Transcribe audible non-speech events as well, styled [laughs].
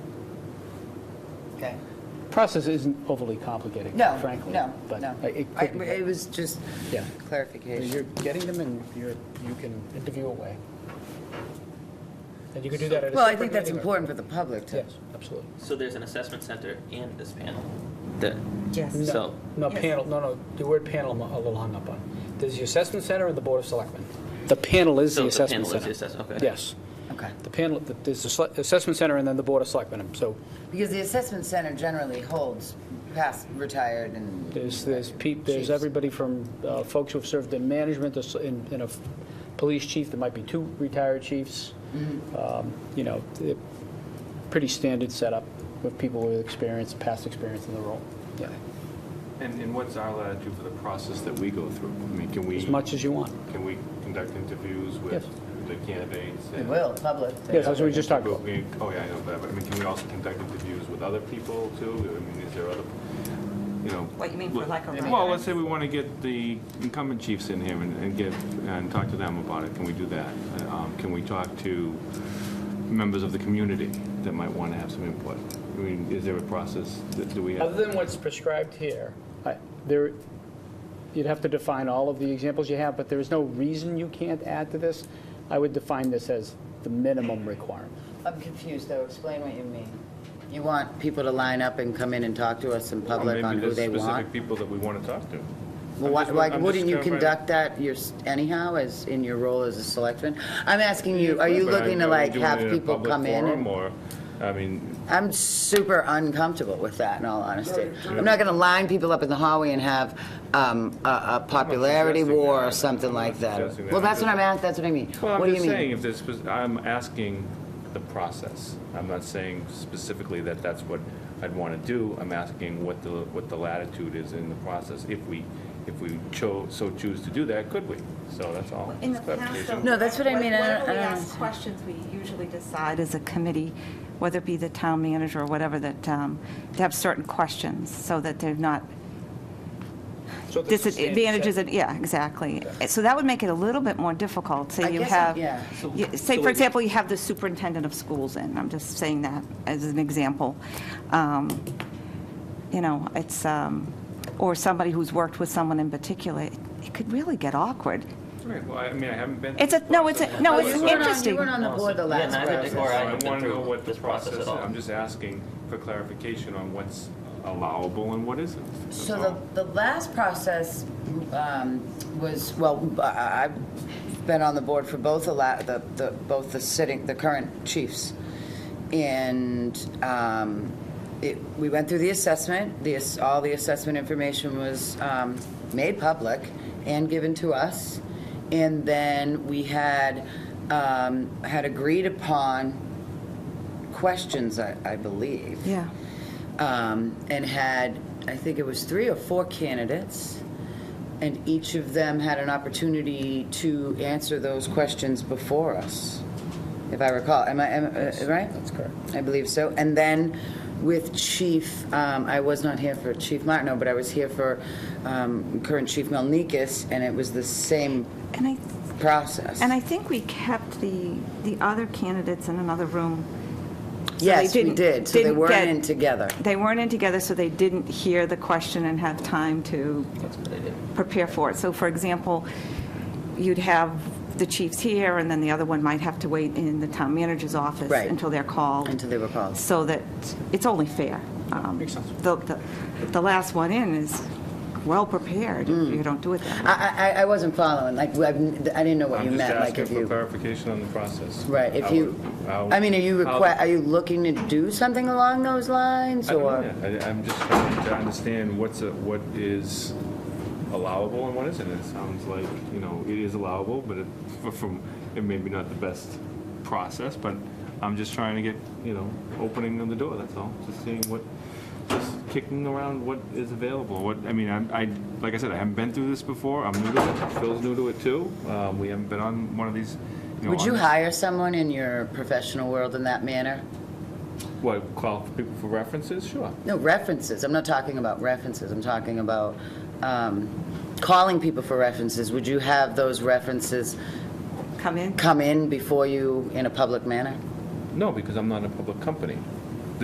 Okay. Process isn't overly complicated, No, frankly. no, but no. I- It I- could be. It was just Yeah. clarification. You're getting them and you're, you can interview away. And you could do that at a separate meeting. Well, I think that's or- important for the public to. Yes, absolutely. So there's an assessment center and this panel. That Yes. so No, panel, no, no, the word panel I'm a little hung up on. There's the assessment center and the board of selectmen. The panel is so the the, assessment panel is the center. assessment. Okay. Yes, Okay. the panel, the- there's the sele- assessment center and then the board of selectmen. So Because the assessment center generally holds past retired and. there's, there's peop, there's Chiefs. everybody from uh, folks who have served in management, there's in, in a f- police chief, there might be two retired chiefs. Um, You know, it- pretty standard setup with people with experience, past experience in the role. Yeah, And, and what's our latitude for the process that we go through? I mean, can we? as much as you want. Can we conduct interviews Yes. with the candidates? It and- will, public. Yes, that's what we just talked But about. we- Oh, yeah, I know, but, I mean, can we also conduct interviews with other people too? I mean, is there other, you know? What you mean for like a Well, writer? Well, let's say we want to get the incumbent chiefs in here and and get, and talk to them about it. Can we do that? Um, Can we talk to members of the community that might want to have some input? I mean, is there a process that, do we have? Other than what's prescribed here, I- there, you'd have to define all of the examples you have, but there is no reason you can't add to this. I would define this as the minimum requirement. I'm confused, though. Explain what you mean. You want people to line up and come in and talk to us in public on who they Maybe there's want? specific people that we want to talk to. Well, I'm why- just- Like, I'm just wouldn't you trying to- conduct that your- anyhow, as, in your role as a selectman? I'm asking you, are you But looking to I'm like doing have it in a people public come in? forum and- Or, I mean, I'm super uncomfortable with that, in all honesty. I'm not going to line people up in the hallway and have um, a a popularity suggesting war that. or something I'm like not that. suggesting that. Well, I'm that's what just- I'm at, that's what I mean. well, What I'm do you just saying, mean? if there's, spec- I'm asking the process. I'm not saying specifically that that's what I'd want to do. I'm asking what the, what the latitude is in the process. If we, if we chose, so choose to do that, could we? So that's all. In the It's past, though. clarification. No, that's what I mean. I don't- Whenever we I don't ask questions, we usually decide as a committee, whether it be the town manager or whatever, that, um, to have certain questions so that they're not So there's a standard disadvantages. set. and- Yeah, exactly. So that would make it a little bit more difficult. I Say you guess it- have, yeah. you- So say, it- for example, you have the superintendent of schools in. I'm just saying that as an example. Um, You know, it's, um, or somebody who's worked with someone in particular. It- It could really get awkward. Right, well, I mean, I haven't been. It's a, through the no, it's, process. a no, it's You weren't on- You interesting. weren't on the board the Yeah, last neither did process. Or I I haven't been want to know through what the this process process is. at all. I'm just asking for clarification on what's allowable and what isn't. That's So all. the, the last process um, was, well, I- I've been on the board for both the, la- the, the- both the sitting, the current chiefs. And um, it, we went through the assessment, the, ass- all the assessment information was um, made public and given to us. And then we had, um, had agreed upon questions, I, I believe Yeah. um, and had, I think it was three or four candidates, and each of them had an opportunity to answer those questions before us, if I recall. Am I, am, uh, right? That's correct. I believe so. And then with Chief, um, I was not here for Chief Martino, but I was here for um, current Chief Melnikas, and it was the same And I process. And I think we kept the, the other candidates in another room. so they Yes, we didn't- did, so they didn't weren't get- in together. They weren't in together, so they didn't hear the question and have time to That's what I did. prepare for it. So for example, you'd have the chiefs here, and then the other one might have to wait in the town manager's office Right. until they're called. Until they were called. So that, it's only fair. Um, Makes sense. The, the- the last one in is well-prepared, if you don't do it that way. I, I, I wasn't following, like, I've n- I didn't know what you meant, like if you. I'm just asking for clarification on the process. Right, if How you, it- how- I mean, are you, how- requi- are you looking to do something along those lines, I don't or? know. I- I'm just trying to understand what's, a- what is allowable and what isn't. It sounds like, you know, it is allowable, but it, [laughs] f- from, it may be not the best process, but I'm just trying to get, you know, opening of the door, that's all. Just seeing what, just kicking around what is available, what, I mean, I'm- I, like I said, I haven't been through this before. I'm new to it. Phil's new to it too. Um, We haven't been on one of these, you know. Would you on- hire someone in your professional world in that manner? What, call for people for references? Sure. No, references, I'm not talking about references, I'm talking about um, calling people for references. Would you have those references Come in? come in before you in a public manner? No, because I'm not a public company.